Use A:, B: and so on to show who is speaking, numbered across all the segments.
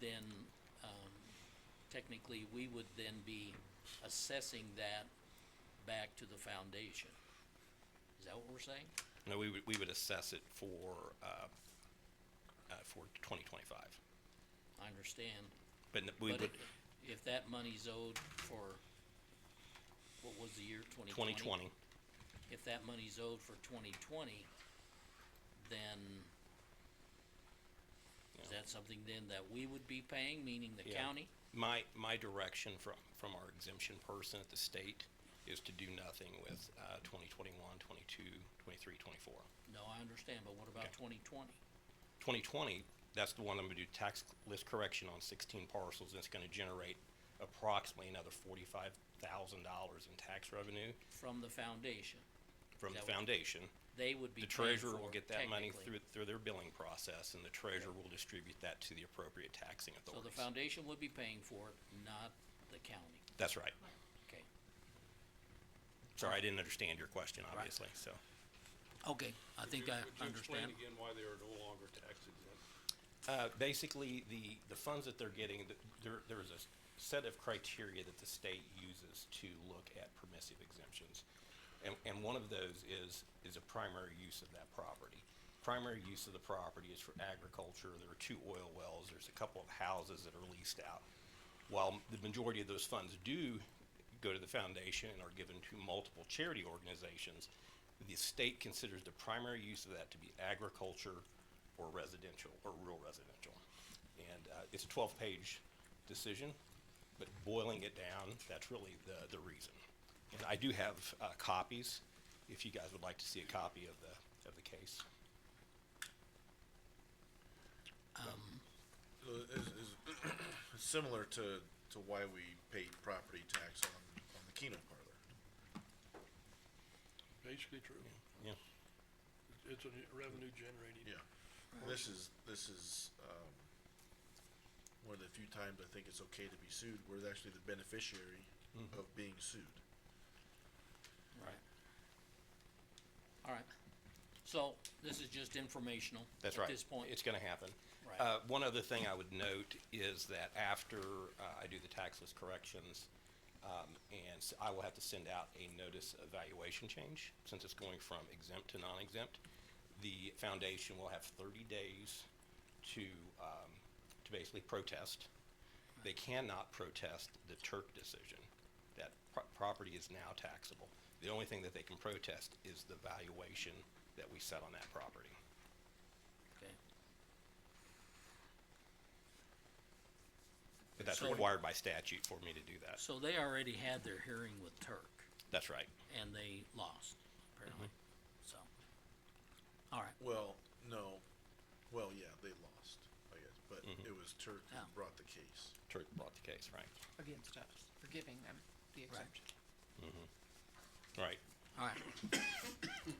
A: then, um, technically, we would then be assessing that back to the foundation. Is that what we're saying?
B: No, we would, we would assess it for, uh, uh, for twenty twenty-five.
A: I understand.
B: But n- we
A: but
B: would,
A: i- If that money's owed for, what was the year, twenty
B: twenty twenty,
A: if that money's owed for twenty twenty, then is
B: Yeah.
A: that something then that we would be paying, meaning the
B: Yeah.
A: county?
B: my, my direction from, from our exemption person at the state is to do nothing with, uh, 2021, 22, 23, 24.
A: No, I understand, but what about
B: Okay.
A: twenty twenty?
B: 2020, that's the one I'm gonna do tax list correction on 16 parcels, and it's gonna generate approximately another $45,000 in tax revenue
A: From the foundation,
B: from the
A: Is that what-
B: foundation.
A: they would be
B: The
A: paying
B: treasurer will
A: for
B: get that money
A: technically.
B: through, through their billing process, and the treasurer will distribute that to the appropriate taxing
A: So the
B: authorities.
A: foundation would be paying for it, not the county,
B: That's right.
A: okay?
B: Sorry, I didn't understand your question, obviously, so.
A: Okay, I think I understand,
C: Would you explain again why they are no longer tax exempt?
B: Uh, basically, the, the funds that they're getting, th- there, there is a s- set of criteria that the state uses to look at permissive exemptions. And, and one of those is, is a primary use of that property. Primary use of the property is for agriculture, there are two oil wells, there's a couple of houses that are leased out. While the majority of those funds do go to the foundation and are given to multiple charity organizations, the state considers the primary use of that to be agriculture or residential, or rural residential. And uh, it's a 12-page decision, but boiling it down, that's really the, the reason. And I do have uh, copies, if you guys would like to see a copy of the, of the case.
D: So Is, uh, is similar to, to why we pay property tax on, on the Keno parlor.
C: Basically true.
B: Yeah,
C: It's a revenue generating.
D: Yeah. This is, this is, um, one of the few times I think it's okay to be sued, we're actually the beneficiary of being sued.
A: right? All right, so this is just informational
B: that's
A: at
B: right.
A: this point.
B: It's going to happen.
A: Right.
B: Uh, One other thing I would note is that after uh, I do the tax list corrections, um, and s- I will have to send out a notice of valuation change, since it's going from exempt to non-exempt. The foundation will have thirty days to, um, to basically protest. They cannot protest the Turk decision. That pro- property is now taxable. The only thing that they can protest is the valuation that we set on that property.
A: Okay.
B: But that's
A: So-
B: required by statute for me to do that.
A: So they already had their hearing with Turk
B: That's right.
A: and they lost, apparently,
B: Mm-hmm.
A: so. All right,
D: Well, no, well, yeah, they lost, I guess, but it was Turk who
A: Oh.
D: brought the case.
B: Turk brought the case, right?
E: against us for giving them the exemption.
B: Right.
A: all right.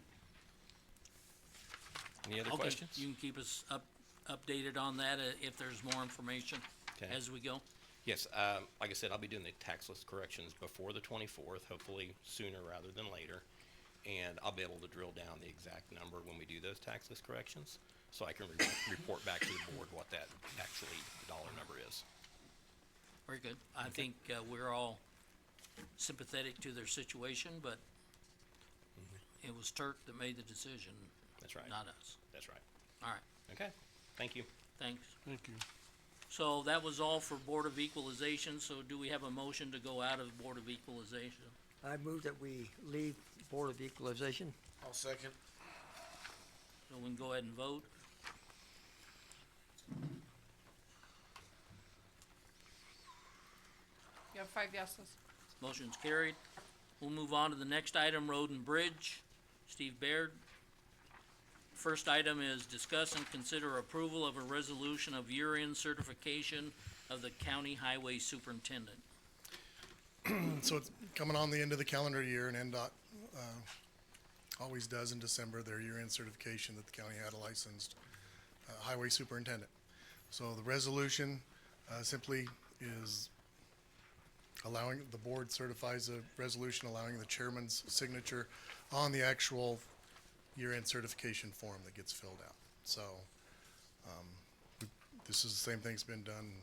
B: Any other
A: Okay,
B: questions?
A: You can keep us up, updated on that uh, if there's more information
B: Okay.
A: as we go.
B: Yes, um, like I said, I'll be doing the tax list corrections before the twenty-fourth, hopefully sooner rather than later. And I'll be able to drill down the exact number when we do those tax list corrections, so I can re- report back to the board what that actually dollar number is.
A: Very good. I think, uh, we're all sympathetic to their situation, but it was Turk that made the decision,
B: That's right.
A: not us.
B: That's right.
A: All right,
B: Okay, thank you.
A: thanks.
C: Thank you.
A: So that was all for Board of Equalization, so do we have a motion to go out of Board of Equalization?
F: I move that we leave Board of Equalization.
D: I'll second.
A: So we can go ahead and vote.
E: You have five yeses.
A: Motion's carried. We'll move on to the next item, Road and Bridge. Steve Baird. First item is discuss and consider approval of a resolution of year-end certification of the county highway superintendent.
G: so it's coming on the end of the calendar year, and NDOT uh, always does in December their year-end certification that the county had a licensed uh, highway superintendent. So the resolution uh, simply is allowing, the board certifies a resolution allowing the chairman's signature on the actual year-end certification form that gets filled out. So um, this is the same thing's been done